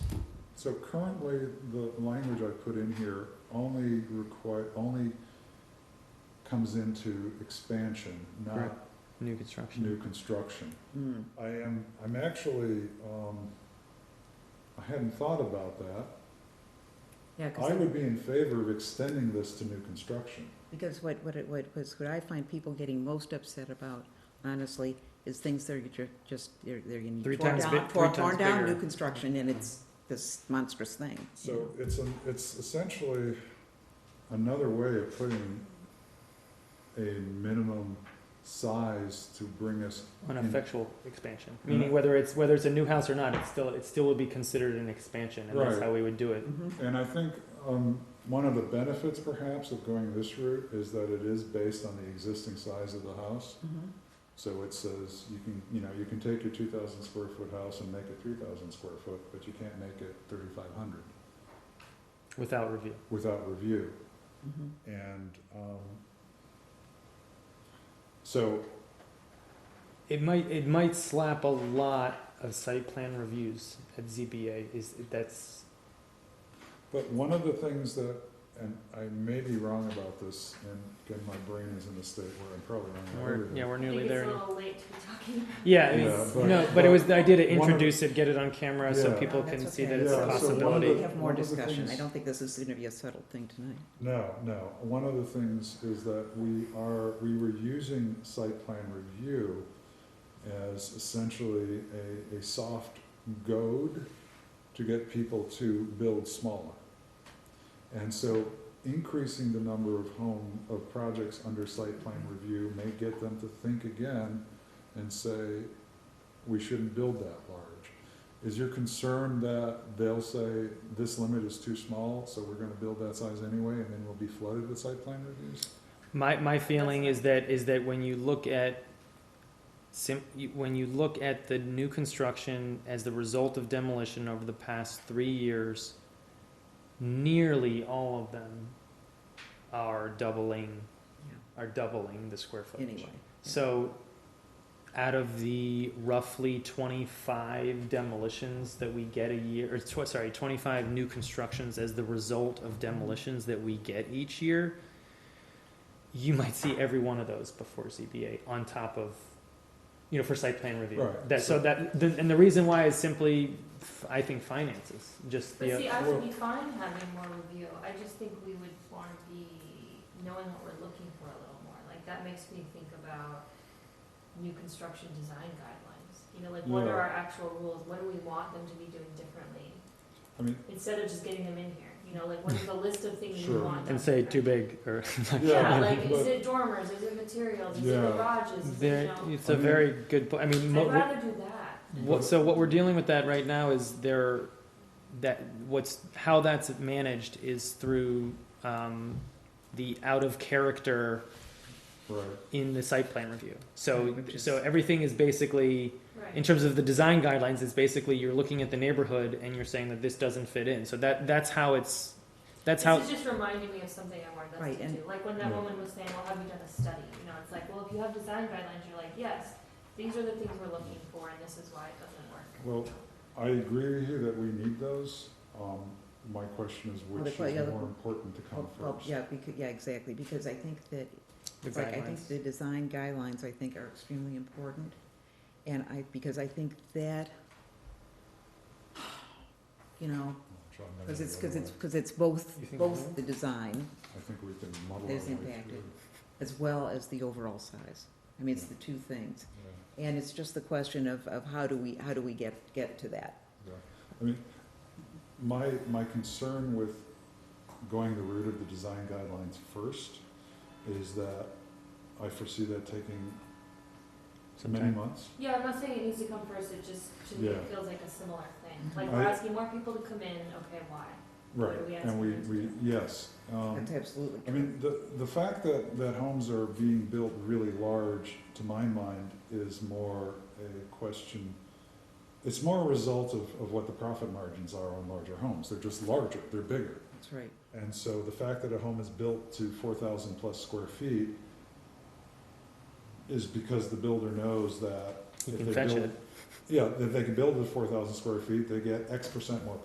So currently, the language I put in here only require, only comes into expansion, Correct. not New construction. new construction. Hmm. I am, I'm actually, um, I hadn't thought about that. Yeah, I because, would be in favor of extending this to new construction. because what, what it, what was, what I find people getting most upset about, honestly, is things that are ju- just, they're, they're gonna Three be torn times down, big- three torn, torn times down, bigger. new construction, and it's this monstrous thing. you So know? it's, an- it's essentially another way of putting a minimum size to bring us On a effectual expansion, Mm. meaning whether it's, whether it's a new house or not, it's still, it still would be considered an expansion, and that's Right. how we would do it. Mhm. And I think um, one of the benefits perhaps of going this route is that it is based on the existing size of the house. Mhm. So it says you can, you know, you can take your two thousand square foot house and make it three thousand square foot, but you can't make it thirty-five hundred Without review. without review. Mhm. And um, so, It might, it might slap a lot of site plan reviews at ZBA, is, that's, but one of the things that, and I may be wrong about this, and again, my brain is in a state where I'm probably wrong about we're, everything. yeah, we're I nearly think it's there. a now. little late to be talking about. Yeah, I mean, Yeah, but- no, but it was the idea to one of- introduce it, get it on camera, so Yeah. people No, can that's see okay. that it's Yeah, a so one of possibility. We have more one of the discussion, I things- don't think this is gonna be a settled thing tonight. No, no. One of the things is that we are, we were using site plan review as essentially a, a soft goad to get people to build smaller. And so increasing the number of home, of projects under site plan review may get them to think again and say, we shouldn't build that large. Is your concern that they'll say, this limit is too small, so we're gonna build that size anyway, and then we'll be flooded with site plan reviews? My, my feeling is that, is that when you look at sim, you- when you look at the new construction as the result of demolition over the past three years, nearly all of them are doubling, Yeah. are doubling the square footage. Anyway. So, out of the roughly twenty-five demolitions that we get a year, or tw- sorry, twenty-five new constructions as the result of demolitions that we get each year, you might see every one of those before ZBA on top of, you know, for site plan review. Right. That, so that, the- and the reason why is simply, f- I think, finances, just But the, see, I would Well- be fine having more review, I just think we would wanna be knowing what we're looking for a little more, like, that makes me think about new construction design guidelines, you know, like, what Yeah. are our actual rules, what do we want them to be doing differently? I mean- Instead of just getting them in here, you know, like, what is the list of things we Sure. want done? and say too different? big, or. Yeah, Yeah, like, is but- it dormers, is it materials, is it Yeah. garages, is it, you There, know? it's I a mean- very good, po- I mean, mo- I'd rather do that. Mm-hmm. What, But- so what we're dealing with that right now is there, that what's how that's managed is through um, the out of character Right, in the site plan review. So Which is- so everything is basically in Right, terms of the design guidelines is basically you're looking at the neighborhood and you're saying that this doesn't fit in. So that that's how it's that's this how is just reminding me of something I wanted us Right, to and- do, like when that Yeah. woman was saying, well, have you done a study, you know, it's like, well, if you have design guidelines, you're like, yes, these are the things we're looking for, and this is why it doesn't work. well, I agree with you that we need those, um, my question is Well, the which que- yeah, is the- more important to come Well, well, first? yeah, because, yeah, exactly, because I think that the It's like, I guidelines. think the design guidelines, I think, are extremely important. And I, because I think that, you know, Which I'm never because it's, gonna because it's, know. because it's both, You think both so? the design I think we can muddle our way There's through. impacted. as well as the overall size. I mean, it's the two things. Yeah. And it's just the question of, of how do we, how do we get, get to that? I mean, my, my concern with going the route of the design guidelines first is that I foresee that taking many Sometime. months. Yeah, I'm not saying it needs to come first, it just, to me, Yeah. it feels like a similar thing, like, Mhm. we're I- asking more people to come in, okay, why? Right, We ask and we, them to we, do yes. um, That's absolutely I true. mean, the, the fact that, that homes are being built really large, to my mind, is more a question, it's more a result of, of what the profit margins are on larger homes. They're just larger, they're bigger. That's right. And so the fact that a home is built to four thousand plus square feet is because the builder knows that You if can they fetch build- it. yeah, if they can build it to four thousand square feet, they get X percent more